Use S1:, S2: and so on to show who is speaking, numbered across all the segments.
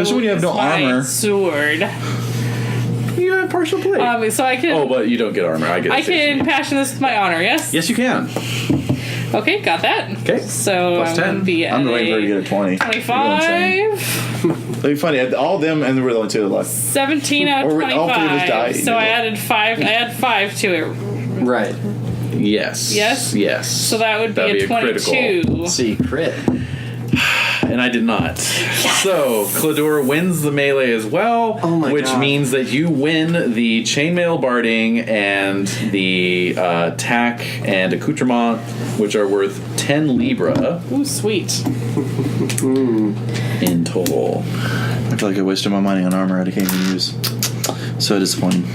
S1: Especially when you have no
S2: is my
S1: armor.
S2: Sword.
S1: You have partial plate.
S2: Um, so I can.
S3: Oh, but you don't get armor. I get.
S2: I
S3: it, Jason.
S2: can passion this with my honor. Yes.
S1: yes, you can.
S2: Okay, got that.
S1: Okay.
S2: So
S1: Plus
S2: I'm
S1: 10.
S2: gonna be at
S4: I'm waiting for her to
S2: a
S4: get a 20. It'd
S2: twenty-five.
S4: be funny. All them and we're the only two left.
S2: 17 out of
S4: Or we- all three of us
S2: 25.
S4: die.
S2: so I added five. I add five to it.
S5: Right.
S3: Yes.
S2: Yes?
S3: Yes.
S2: So that would be
S3: That'd
S2: a 22.
S3: critical.
S5: Secret.
S3: And I did not. So Clador wins the melee as well,
S5: Oh my
S3: which
S5: God.
S3: means that you win the chainmail barding and the uh, tack and accoutrement, which are worth ten libra
S2: Ooh, sweet.
S3: in total.
S4: I feel like I wasted my money on armor I can't even use. So disappointing.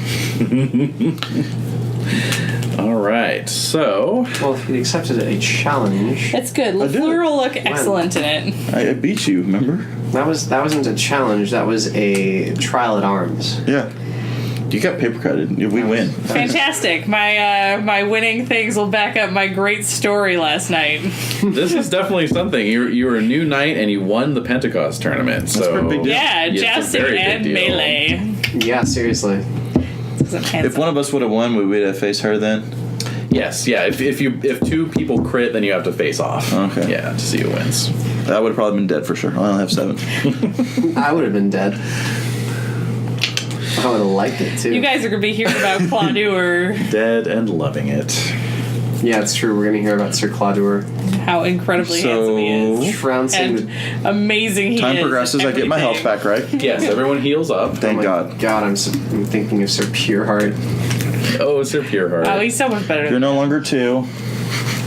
S3: All right. So
S5: Well, if he accepted a challenge,
S2: That's good. Lafleur will look excellent in it.
S4: I, I beat you, remember?
S5: that was that wasn't a challenge. That was a trial at arms.
S4: Yeah. You got paper credit. We win.
S2: Fantastic. My uh, my winning things will back up my great story last night.
S3: this is definitely something. You you were a new knight and you won the Pentecost tournament. So
S4: pretty big deal.
S2: Yeah,
S3: it's a
S2: jousting
S3: very big
S2: and
S3: deal.
S2: melee.
S5: Yeah, seriously.
S2: Doesn't
S4: If
S2: cancel.
S4: one of us would have won, we would have faced her then.
S3: Yes, yeah. If, if you if two people crit, then you have to face off.
S4: Okay.
S3: Yeah, to see who wins.
S4: I would have probably been dead for sure. I only have seven.
S5: I would have been dead. I would have liked it too.
S2: You guys are going to be hearing about Claude or
S3: Dead and loving it.
S5: yeah, it's true. We're gonna hear about Sir Claudur.
S2: how incredibly handsome he is.
S5: Trouncing the
S2: And amazing he
S4: Time
S2: is.
S4: progresses. I get my health
S2: Everything.
S4: back, right?
S3: Yes, everyone heals up.
S5: Oh
S4: Thank
S5: my
S4: God.
S5: God, I'm, so, I'm thinking of Sir Pureheart.
S3: Oh, it's your pure heart.
S2: Oh, he's so much better
S4: You're
S2: than
S4: no longer two.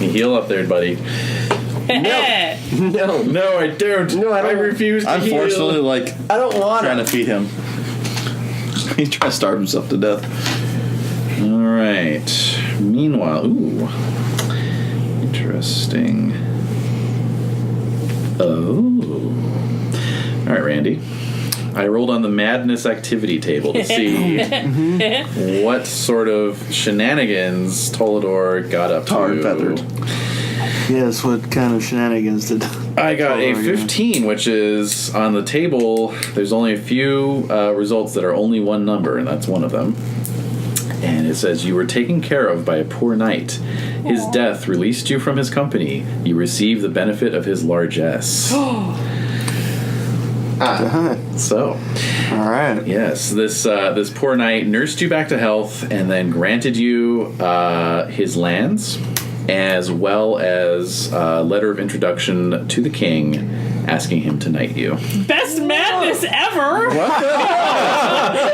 S3: You heal up there, buddy.
S2: that.
S5: No,
S3: No, I don't.
S5: No, I don't.
S3: refuse to
S4: I'm forcefully like
S5: I don't want
S4: trying
S5: to.
S4: to feed him. He's trying to starve himself to death.
S3: All right. Meanwhile, ooh, interesting. Oh. All right, Randy. I rolled on the madness activity table to see what sort of shenanigans Tolador got up
S4: Tar
S3: to.
S4: and feathered.
S6: Yes, what kind of shenanigans did
S3: I got a
S6: Tolador, yeah.
S3: 15, which is on the table. There's only a few uh, results that are only one number, and that's one of them. And it says, You were taken care of by a poor knight. His death released you from his company. You receive the benefit of his largesse. Ah. so,
S6: All right.
S3: yes, this uh, this poor knight nursed you back to health and then granted you uh, his lands as well as a letter of introduction to the king asking him to knight you.
S2: Best madness ever.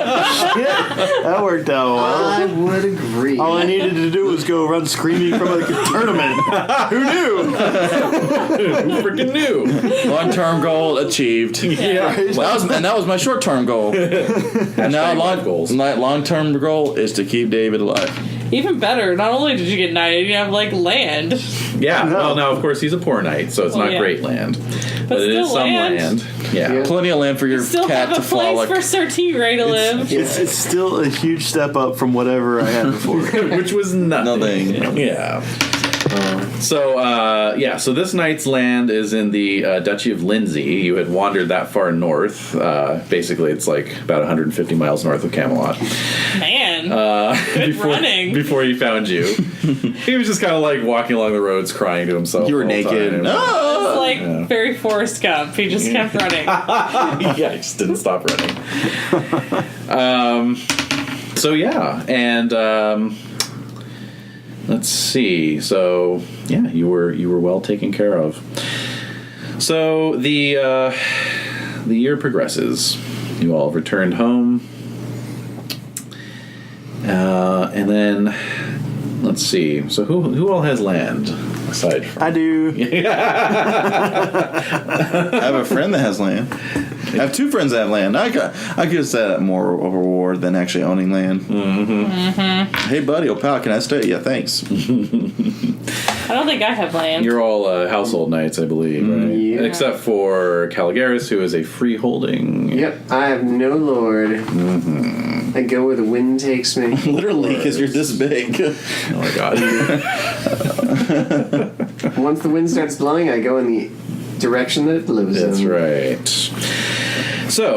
S6: That worked out well.
S5: I would agree.
S6: All I needed to do was go run screaming from a tournament. Who knew?
S3: freaking new.
S4: Long term goal achieved.
S3: Yeah.
S4: That was, and that was my short term goal. and now long
S3: life goals.
S4: long term goal is to keep David alive.
S2: Even better, not only did you get knighted, you have like land.
S3: Yeah. Well, now of course he's a poor knight, so it's
S2: Well,
S3: not
S2: yeah.
S3: great land, but, it
S2: still
S3: is some
S2: land.
S3: land. Yeah.
S5: Yeah.
S4: Plenty of land for your
S2: Still
S4: cat
S2: have
S4: to
S2: a place
S4: frolic.
S2: for Sir T Ray to live.
S6: It's, it's still a huge step up from whatever I had before.
S3: Which was nothing.
S4: Nothing.
S3: Yeah. So uh, yeah, so this knight's land is in the uh, Duchy of Lindsey. You had wandered that far north. Uh, basically, it's like about 150 miles north of Camelot.
S2: Man.
S4: Uh,
S3: Good before,
S2: running.
S3: Before he found you, he was just kind of like walking along the roads, crying to himself.
S4: you were
S3: the whole
S4: naked.
S3: time.
S4: No!
S2: it's like very Forrest Gump. He just kept running.
S3: yeah, I just didn't stop running. um, so yeah, and um, let's see. So yeah, you were you were well taken care of. So the uh, the year progresses. You all returned home, uh, and then let's see. So who who all has land aside from?
S6: I do.
S4: I have a friend that has land. I have two friends that have land. I could, I could have said that more of a reward than actually owning land. Mm-hmm. Hey, buddy, old pal, can I stay? Yeah, thanks.
S2: I don't think I have land.
S3: You're all uh, household knights, I believe, right?
S5: Yeah.
S3: Except for Caligaris, who is a freeholding.
S5: Yep, I have no lord. I go where the wind takes me.
S4: Literally, because you're this big.
S3: Oh my god.
S5: Once the wind starts blowing, I go in the direction that it blows
S3: That's
S5: in.
S3: right. So,